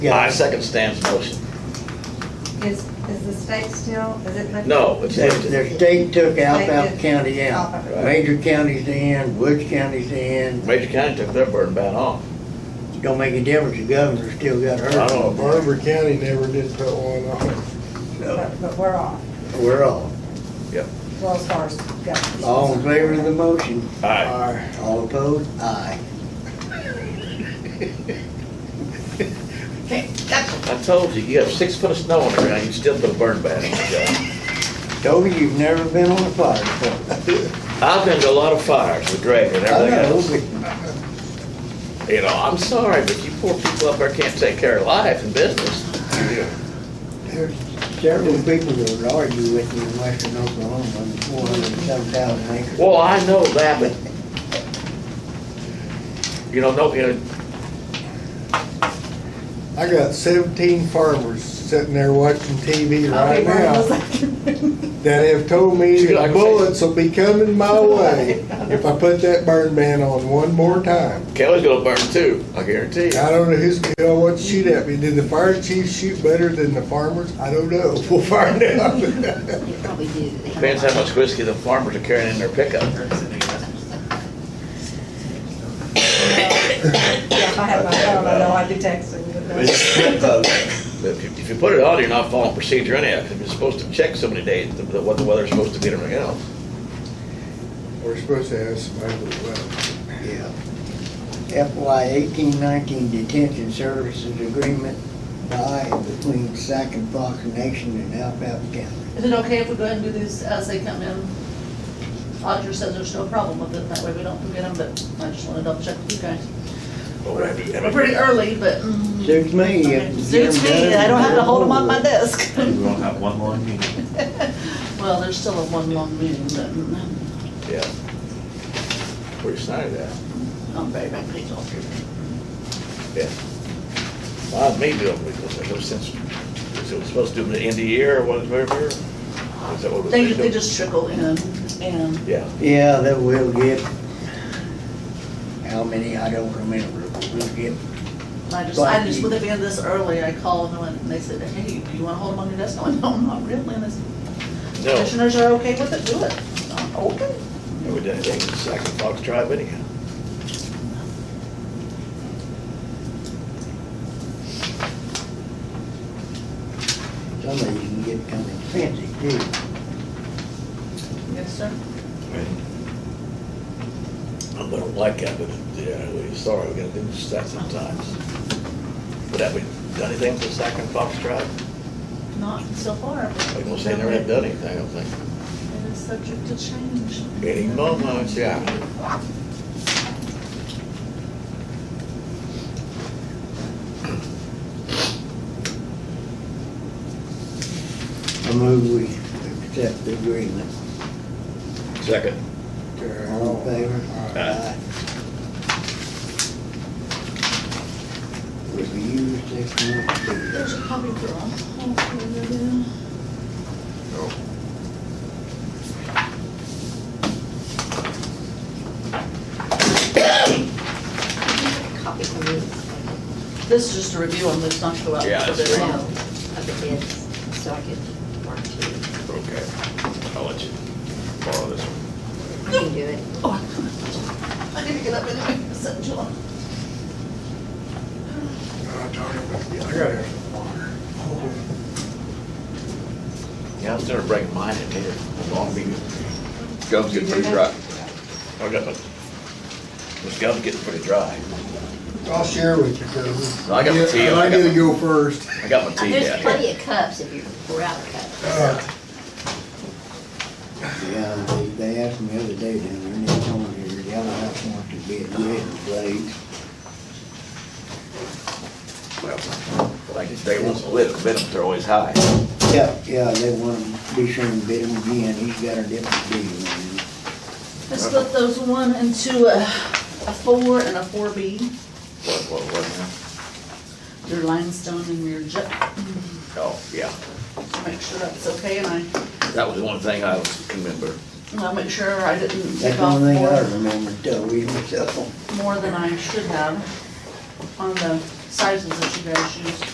Yeah. I second Stan's motion. Is, is the state still, is it? lifted? No, it's Their empty. their state took Alphaba did. County out. Alphaba. Major counties in, Woods county's in, Major County took their burden ban off. don't make a difference, the governor still got I hurt. don't know. Barber County never did put one on. So But, but we're off, we're all, well, as far as government. all in favor of the motion, Aye. Aye. all opposed, aye. I told you, you have six foot of snow on the ground, you still put a burn ban on the Toby, you've never been on a fire before. job. I've been to a lot of fires with Greg and I everything know, else. but You know, I'm sorry, but you poor people up there can't take care of life and business. there's several people that would argue with you in western Oklahoma, four hundred and seven thousand acres. Well, I know that, but, you know, no, you know, I got seventeen farmers sitting there watching TV I'll right be one of now those. that have told me Should I that say- bullets will be coming my way if I put that burn ban on one more time. Kelly's gonna burn too, I guarantee you. I don't know who's gonna know what to shoot at me. Did the fire chief shoot better than the farmers? I don't know. We'll find out. You probably do. Depends how much whiskey the farmers are carrying in their pickup. Yeah, if I had my phone, I know I'd be texting. but no. But If you- if you put it on, you're not following procedure anyhow, because you're supposed to check so many days the- the- what the weather's supposed to be and everything else. We're supposed to have somebody with weapons. Yeah. FY eighteen nineteen detention services agreement by and between Sac and Fox Nation and Alphaba County. Is it okay if we go ahead and do these as they come in? Auditor says there's no problem with it, that way we don't forget them, but I just wanna double check with you guys. But we have to- I We're mean, pretty early, but. mm, Suits me. okay. Suits me, I don't have to hold them on my desk. We won't have one more meeting. Well, there's still a one long meeting, but mm, Yeah. We're excited that. I'm very, very pleased all through. Yeah. Well, me doing it because there's no sense, is it supposed to do them at the end of the year or what, whatever? Is Oh, that what it was They, they doing? just trickle in and Yeah. Yeah, that will get, how many, I don't remember, but we'll get, I just, I just, with it being this early, I called them and they said, hey, do you wanna hold them on your desk? I went, no, not really. And they said, No, commissioners are okay with it, do it. I'm, Okay. we didn't anything in Sac and Fox Drive anyhow. some of these can get kind of expensive too. Yes, sir. I don't like that, but yeah, we're sorry, we're gonna do that sometimes. But have we done anything for Sac and Fox Drive? Not so far. but- Like, we'll say never have done anything, I don't think. It is subject to change. Any moment, yeah. I move we accept the agreement. Second. All in favor? Aye. Review six months. There's a copy for all. Hopefully, Copy for me. uh, This is just a review on this, not to go out. Yeah, for that's bid. Well, of the bids, so I could mark two. Okay, I'll let you borrow this one. I can do it. Oh, I need to get up anyway, it's set in July. I gotta have some water. Yeah, I was gonna break mine in here, Long Beach. Gums get pretty dry. I got my, this gum's getting pretty dry. I'll share with you, cause. I got the tea, I I got need to the- go first. I got my tea There's down here. plenty of cups if you're, we're out of cups. Uh, Yeah, they, they asked me the other day down there, and they told me the yellow house wants to be a red place. Well, Like they won't lit, bid them, they're always high. Yeah, yeah, they want to be sure and bid him again, he's got a different deal on him. I split those one into a, a four and a four B, What, what, what now? your limestone and your jet, Oh, yeah, make sure that's okay, and I, that was one thing I can remember. and I'll make sure I didn't That's take the off only thing I more, remember, Toby, myself. more than I should have on the sizes that you guys used.